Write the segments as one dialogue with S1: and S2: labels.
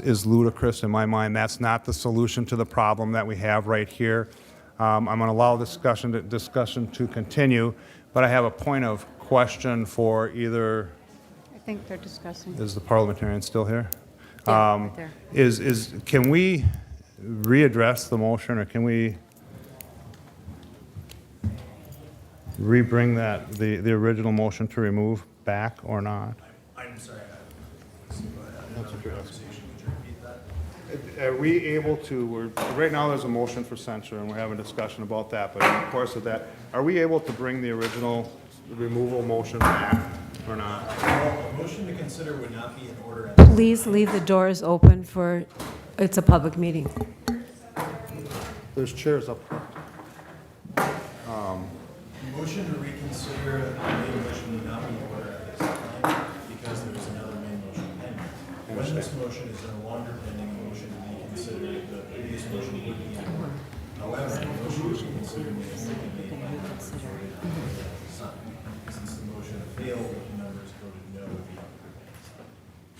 S1: is ludicrous in my mind. That's not the solution to the problem that we have right here. Um, I'm going to allow discussion to, discussion to continue, but I have a point of question for either.
S2: I think they're discussing.
S1: Is the parliamentarian still here?
S2: Yeah, right there.
S1: Is is can we readdress the motion, or can we rebring that the the original motion to remove back or not?
S3: I'm sorry.
S1: Are we able to, we're, right now, there's a motion for censure, and we're having a discussion about that, but in the course of that, are we able to bring the original removal motion back or not?
S3: A motion to consider would not be in order at this
S4: Please leave the doors open for, it's a public meeting.
S1: There's chairs up.
S3: time. Motion to reconsider the main motion would not be in order at this time because there is another main motion pending. When this motion is no longer pending, the motion to be considered, the previous motion would be in order. However, the motion to reconsider may only be made by the majority of the members at this time. Since the motion failed, the members voted no at the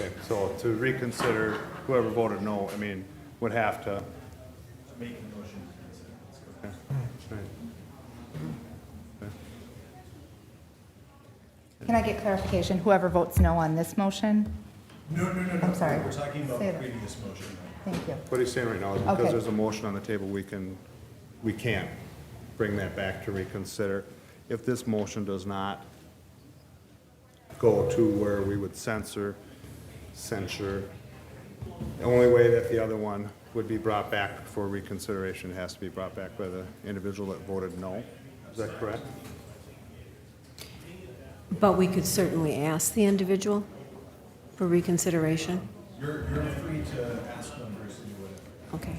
S3: other.
S1: Okay, So to reconsider, whoever voted no, I mean, would have to.
S3: Make a motion to consider. That's correct.
S5: Can I get clarification? Whoever votes no on this motion?
S3: No, no, no, no.
S5: I'm sorry.
S3: We're talking about
S5: Say
S3: the
S5: that.
S3: previous motion.
S5: Thank you.
S1: What he's saying right now is because
S5: Okay.
S1: there's a motion on the table, we can, we can't bring that back to reconsider. If this motion does not go to where we would censor, censure, the only way that the other one would be brought back for reconsideration, it has to be brought back by the individual that voted no. Is that correct?
S4: But we could certainly ask the individual for reconsideration.
S3: You're, you're free to ask members to do whatever.
S4: Okay.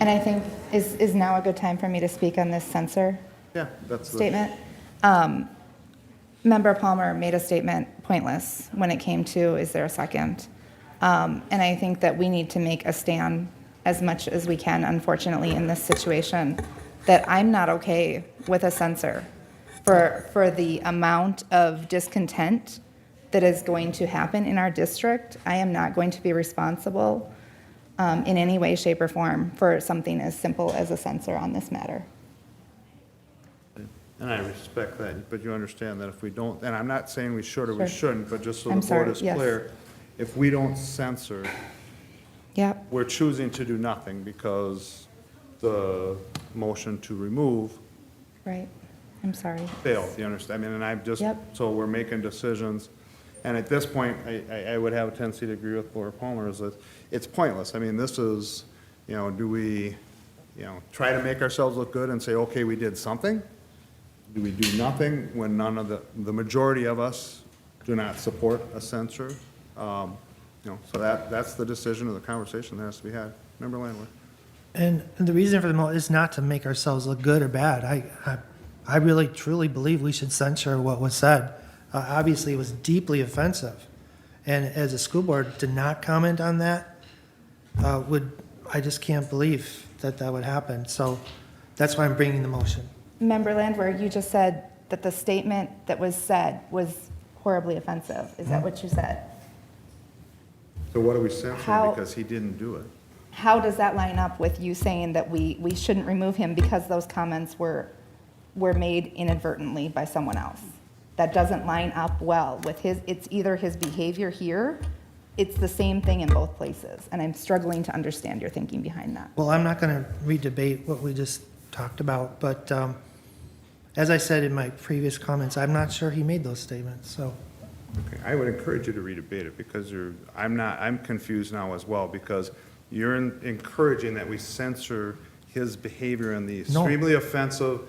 S5: And I think, is, is now a good time for me to speak on this censor
S1: Yeah, that's the.
S5: statement? Um, Member Palmer made a statement pointless when it came to, is there a second? Um, And I think that we need to make a stand as much as we can, unfortunately, in this situation, that I'm not okay with a censor for, for the amount of discontent that is going to happen in our district. I am not going to be responsible um, in any way, shape, or form for something as simple as a censor on this matter.
S1: And I respect that, but you understand that if we don't, and I'm not saying we should or we
S5: Sure.
S1: shouldn't, but just so the
S5: I'm
S1: board
S5: sorry,
S1: is
S5: yes.
S1: clear, if we don't censor,
S5: Yep.
S1: we're choosing to do nothing because the motion to remove
S5: Right, I'm sorry.
S1: failed, you understand? I mean, and I'm just,
S5: Yep.
S1: so we're making decisions. And at this point, I, I- I would have a tendency to agree with Laura Palmer, is that it's pointless. I mean, this is, you know, do we, you know, try to make ourselves look good and say, okay, we did something? Do we do nothing when none of the, the majority of us do not support a censure? Um, You know, so that, that's the decision of the conversation that has to be had. Member Landwehr?
S6: And the reason for the mo is not to make ourselves look good or bad. I, I, I really truly believe we should censure what was said. Uh, obviously, it was deeply offensive, and as a school board, to not comment on that uh, would I just can't believe that that would happen. So that's why I'm bringing the motion.
S5: Member Landwehr, you just said that the statement that was said was horribly offensive. Is
S6: Hmm?
S5: that what you said?
S1: So what are we censoring
S5: How-
S1: because he didn't do it?
S5: How does that line up with you saying that we, we shouldn't remove him because those comments were, were made inadvertently by someone else? That doesn't line up well with his, it's either his behavior here, it's the same thing in both places. And I'm struggling to understand your thinking behind that.
S6: Well, I'm not going to redebate what we just talked about, but um, as I said in my previous comments, I'm not sure he made those statements. So.
S1: Okay, I would encourage you to redebate it, because you're, I'm not, I'm confused now as well, because you're en- encouraging that we censor his behavior and the
S6: No.
S1: extremely offensive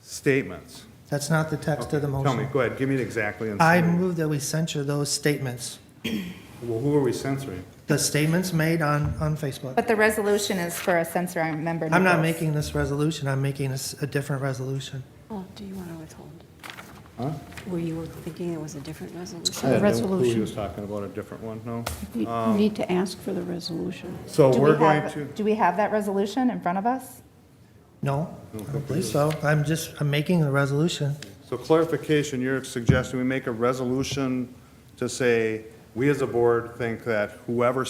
S1: statements.
S6: That's not the text of the motion.
S1: Tell me, go ahead, give me it exactly. and
S6: I
S1: say-
S6: move that we censure those statements,
S1: Well, who are we censoring?
S6: the statements made on, on Facebook.
S5: But the resolution is for a censor on member.
S6: I'm not
S5: Nichols.
S6: making this resolution, I'm making a, s- a different resolution.
S2: Oh, do you want to withhold?
S1: Huh?
S2: Were you thinking it was a different resolution?
S1: I
S7: The
S1: didn't know Who he
S7: resolution.
S1: was talking about, a different one, no?
S7: You you need to ask for the resolution.
S1: So
S5: Do we
S1: we're going
S5: have-
S1: to,
S5: Do we have that resolution in front of us?
S6: No, I don't believe so. I'm just, I'm making the resolution.
S1: so clarification, you're suggesting we make a resolution to say, we as a board think that whoever